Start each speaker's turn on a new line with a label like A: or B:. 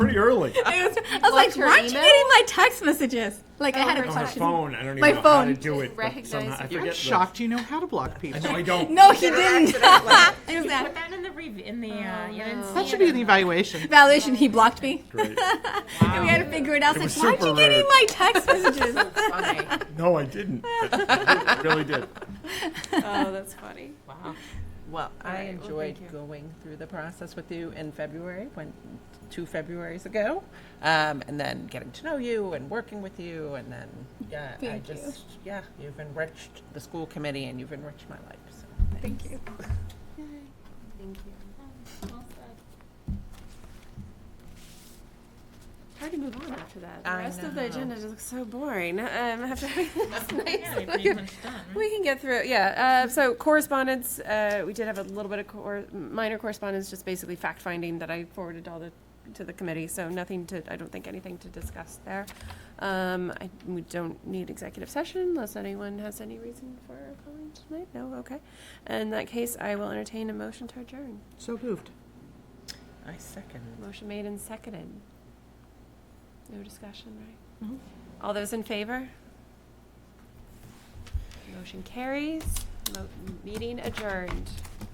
A: pretty early.
B: It was, I was like,
C: Watch your
B: why aren't you
C: email?
B: getting my text messages? Like, I
C: Oh,
B: had a
C: her
A: On my
C: text.
B: question.
A: phone, I don't even
B: My
A: know how
B: phone.
A: to do it. But
C: Recognize
A: somehow, I
C: it.
A: forget
D: I'm
A: those.
D: shocked you know how to block
A: I
D: people.
A: know I don't.
B: No, he didn't. it was
E: Put
B: that
E: that in the re- in the uh, you didn't see
D: That should
E: it
D: be an evaluation.
B: validation. He blocked me.
A: Great.
B: And we had to figure it out.
A: Oh. It
B: It's
A: was
B: like, why aren't
A: super
B: you getting
A: rude.
B: my text messages?
E: funny.
A: No, I didn't. I really did.
E: oh, that's funny. Wow.
F: Well, I
E: right, well,
F: enjoyed
E: thank
F: going through the process with you in February, when two Februarys ago, um, and then getting to know you and working with you, and then yeah, I
B: Thank you.
F: just yeah, you've enriched the school committee and you've enriched my life. So.
B: Thank you.
C: Thank you.
E: Well said.
C: Hard to move on after that. The
F: I
C: rest of the
F: know.
C: agenda just looks so boring. Um, after this
E: Yeah,
C: nice
E: you're pretty much done.
C: We can get through it, yeah. Uh, so correspondence, uh, we did have a little bit of cor- minor correspondence, just basically fact finding that I forwarded all the to the committee. So nothing to, I don't think anything to discuss there. Um, I, we don't need executive session unless anyone has any reason for calling tonight. No, okay. In that case, I will entertain a motion to adjourn.
D: So moved.
F: I second.
C: Motion made and seconded. No discussion, right? All those in favor? Motion carries. Mo- Meeting adjourned.